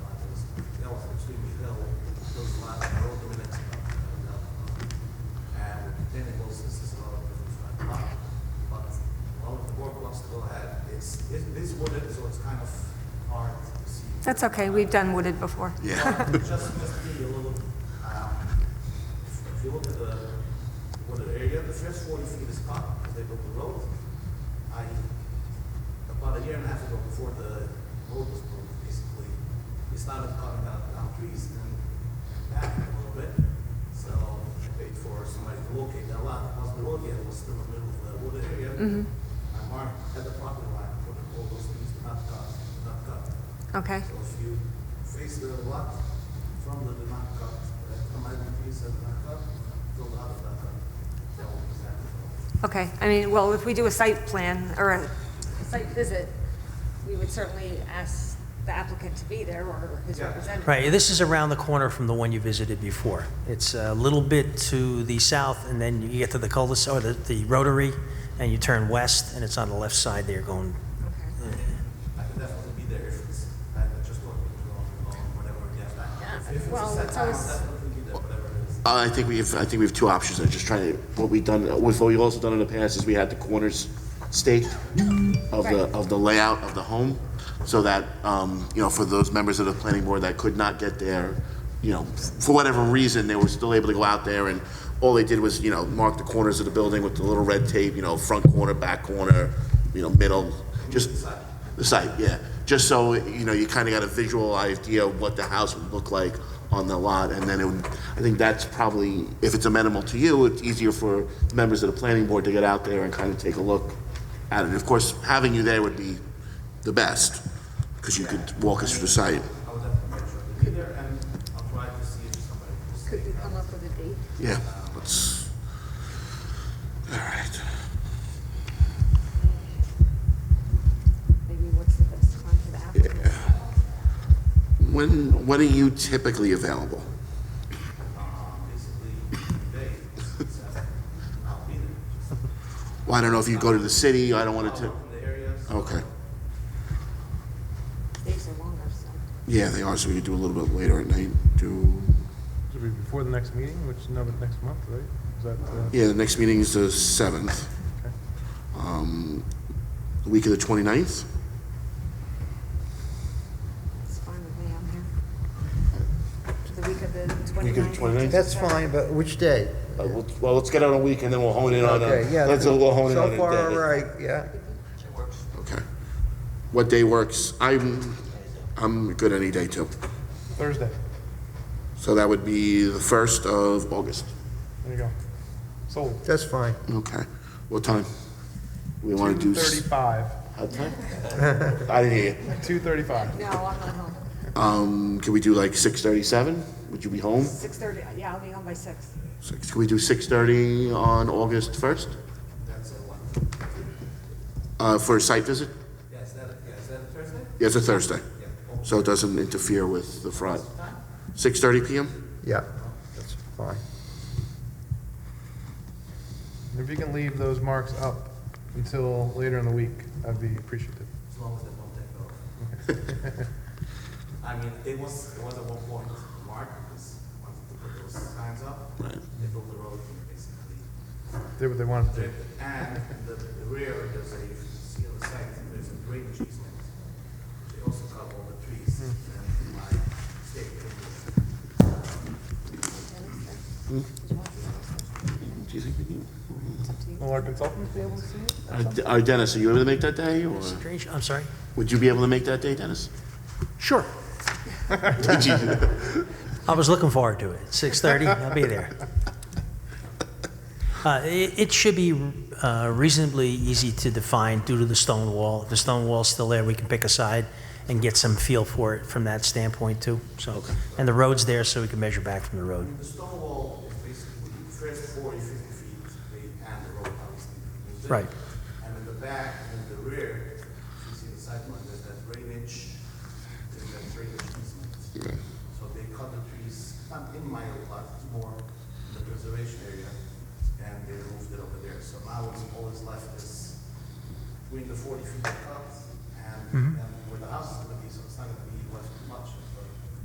That's okay, we've done wooded before. Yeah. Just must be a little, um, if you look at the, what the area, the first forty feet is cut, because they built the road. I, about a year and a half ago, before the road was built, basically, we started cutting down, down trees and back a little bit. So I paid for somebody to locate that lot, because the road yet was still in the middle of the wooded area. I marked at the property line, put all those trees to not cut, not cut. Okay, So if you face the lot from the Denmark cut, right, from my piece of Denmark cut, go out of that cut. That will be exactly. okay. I mean, well, if we do a site plan or a, A site visit, we would certainly ask the applicant to be there or his Yeah. representative. Right, this is around the corner from the one you visited before. It's a little bit to the south, and then you get to the cul-de-sac, or the, the rotary, and you turn west, and it's on the left side there going, Okay. I could definitely be there if it's, I could just work with you on, on whatever we get back. Yeah, If it's a well, it's setback, I'll always- definitely be there, whatever it is. Uh, I think we have, I think we have two options. I'm just trying to, what we've done, what we've also done in the past is we had the corners staked of the, Right. of the layout of the home, so that, um, you know, for those members of the planning board that could not get there, you know, for whatever reason, they were still able to go out there, and all they did was, you know, mark the corners of the building with the little red tape, you know, front corner, back corner, you know, middle, just, the site, yeah. Just so, you know, you kind of got a visual idea of what the house would look like on the lot, and then it would, I think that's probably, if it's amenable to you, it's easier for members of the planning board to get out there and kind of take a look at it. Of course, having you there would be the best, because you could walk us through the site. I'll definitely make sure to be there and I'll try to see if somebody will stay. Could we come up with a date? Yeah, let's, all right. Maybe what's the best time for the applicant? When, when are you typically available? Um, basically, today, it's, uh, I'll be there. Just- Well, I don't know if you go to the city, I don't want I'll to, work in the area, so okay. Days are longer, so. Yeah, they are, so we could do a little bit later at night, do, It'll be before the next meeting, which is now the next month, right? Is that, uh, yeah, the next meeting is the 7th. Okay. Um, The week of the 29th? It's fine with me, I'm here. The week of the 29th. Week of the 29th? That's fine, but which day? Uh, Well, well, let's get out a week and then we'll hone in on, a- Okay, yeah. let's, we'll hone in on a So far, all day. right, yeah. Okay. What day works? I'm, I'm good any day too. Thursday. So that would be the 1st of August. There you go. Sold. That's fine. Okay. What time? We want to do. s- 2:35. What time? I didn't hear you. 2:35. No, I'm not home. Um, Can we do like 6:37? Would you be home? 6:30, yeah, I'll be home by 6. Six. Can we do 6:30 on August 1st? That's a one. Uh, For a site visit? Yeah, is that, yeah, is that a Thursday? Yeah, it's a Thursday, Yeah. so it doesn't interfere with the Friday. 6:30 PM? Yeah, that's fine. If you can leave those marks up until later in the week, I'd be appreciative. as long as they don't take off. I mean, it was, it was at one point, Mark was, wanted to put those signs up. Right. They built the road, basically. Did what they wanted to do. And in the the rear, there's a, if you see on the side, there's a drainage easement. They also cut all the trees and my state. Do you think we need? Will our consultants be able to see it? Uh, D- uh, Dennis, are you able to make that day, or strange, I'm sorry? would you be able to make that day, Dennis? Sure. Did you- I was looking forward to it. 6:30, I'll be there. Uh, It it should be uh, reasonably easy to define due to the stone wall. If the stone wall's still there, we can pick a side and get some feel for it from that standpoint, too. So, and the road's there, so we can measure back from the road. The stone wall is basically the first 40, 50 feet, they and the road obviously. used it. Right. And in the back and in the rear, if you see the sideline, there's that drainage, there's that drainage easement. So they cut the trees, not in my lot, it's more in the preservation area, and they moved it over there. So now it's always left Mm-hmm. is between the 40 feet of cut and, and where the house is gonna be, so it's not gonna be